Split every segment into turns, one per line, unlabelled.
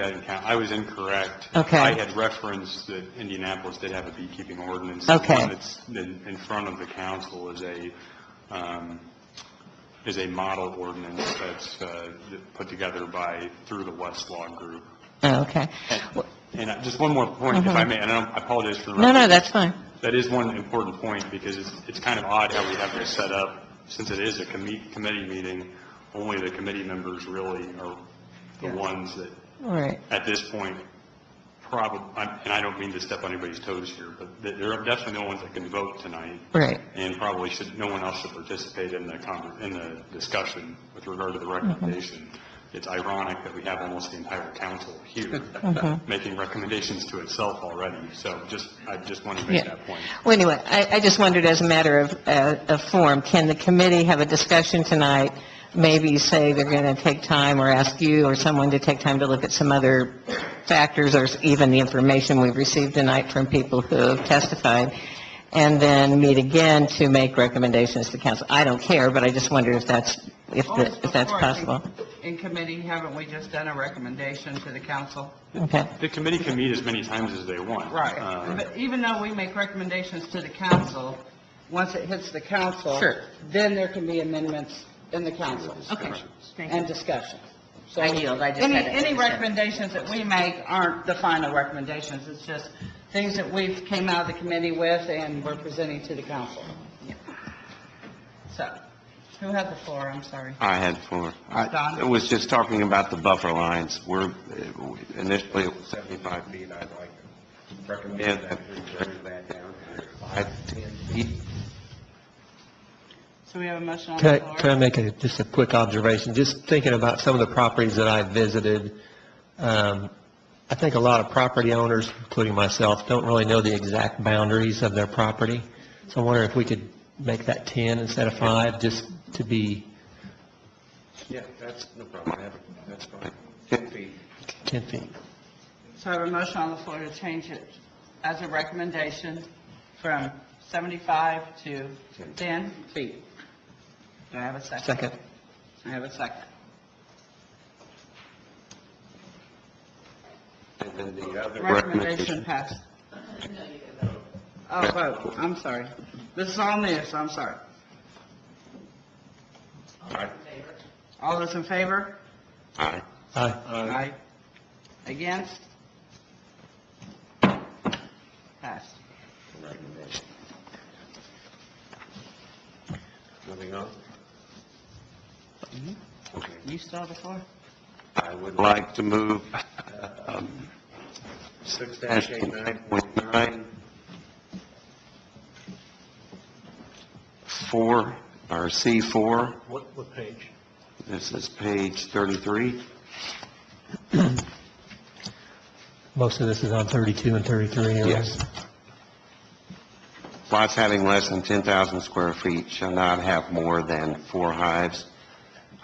I didn't count. I was incorrect.
Okay.
I had referenced that Indianapolis did have a beekeeping ordinance.
Okay.
The one that's in in front of the council is a, um, is a model ordinance that's uh, put together by, through the Westlaw Group.
Oh, okay. Well,
And I- just one more point, if I may, and I don't- I apologize for
No,
interrupting.
no, that's fine.
That is one important point, because it's, it's kind of odd how we have this set up, since it is a commi- committee meeting, only the committee members really are the ones that
All right.
at this point, probably, and I don't mean to step on anybody's toes here, but th- there are definitely no ones that can vote tonight,
Right.
and probably should, no one else should participate in the, conver- in the discussion with regard to the recommendation. It's ironic that we have almost the entire council here making recommendations to itself already, so just, I just wanted to make
Yeah.
that point.
Well, anyway, I, I just wondered, as a matter of, uh, of form, can the committee have a discussion tonight? Maybe say they're going to take time, or ask you or someone to take time to look at some other factors, or even the information we've received tonight from people who have testified, and then meet again to make recommendations to council. I don't care, but I just wonder if that's, if, the- if that's
Before, I think,
possible.
In committee, haven't we just done a recommendation to the council?
Okay.
The committee can meet as many times as they want. Uh,
But even though we make recommendations to the council, once it hits the council.
Sure.
Then there can be amendments in the council.
Okay.
And discussion. So
I yield. I just
Any,
had to
any
understand.
recommendations that we make aren't the final recommendations. It's just things that we've came out of the committee with and we're presenting to the council. So, who had the floor? I'm sorry.
I had four. I
Don?
was just talking about the buffer lines. We're, uh, initially, it was 75 feet. I'd like to recommend that we bring that down to 5 to 10 feet.
So we have a motion on the
Can
floor?
I, can I make a, just a quick observation? Just thinking about some of the properties that I visited, um, I think a lot of property owners, including myself, don't really know the exact boundaries of their property. So I wonder if we could make that 10 instead of 5, just to be
Yeah, that's no problem. I have it. That's fine. 10 feet.
10 feet.
So I have a motion on the floor to change it as a recommendation from 75 to 10 feet. Do I have a second?
Second.
I have a second.
And then the other
Recommendation
recommendation.
passed. Oh, vote, I'm sorry. This is all new, so I'm sorry.
Aye.
All those in favor?
Aye.
Aye.
Aye. Against? Passed.
Recommendation. Moving on. Okay.
You still have the floor?
Mm-hmm. I would like to move um, 6-89.9, 4, or C4. What, what page? This is page 33.
Most of this is on 32 and 33. or-
Yes. Lots having less than 10,000 square feet shall not have more than four hives.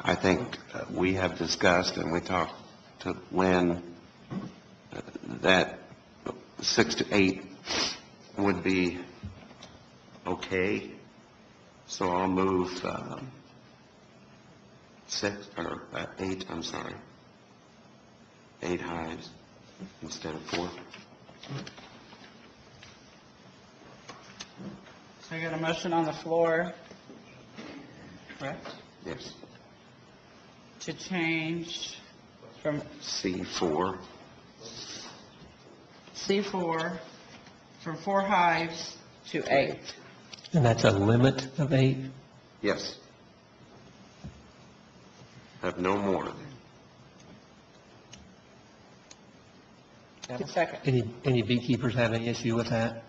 I think uh, we have discussed, and we talked to Lynn, uh, that six to eight would be okay, so I'll move um, six, or uh, eight, I'm sorry, eight hives instead of four.
So I got a motion on the floor, correct,
Yes.
to change from
C4.
C4, from four hives to eight.
And that's a limit of 8?
Yes. Have no more.
Do I have a second?
Any, any beekeepers have any issue with that?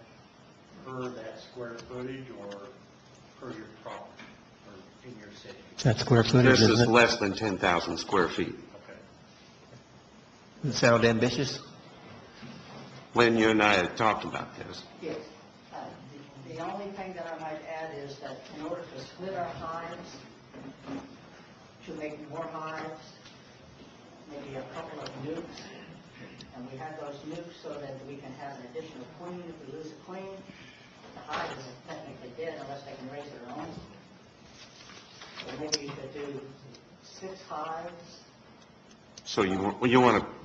per that square footage or per your property or in your city?
That square footage,
This is
isn't it?
less than 10,000 square feet.
Okay.
Sound ambitious?
Lynn, you and I had talked about this.
Yes. Uh, The the only thing that I might add is that in order to split our hives, to make more hives, maybe a couple of nukes, and we have those nukes so that we can have an additional queen, if we lose a queen, the hive is technically dead unless they can raise their own. So maybe you could do six hives,
So you, wa- you want to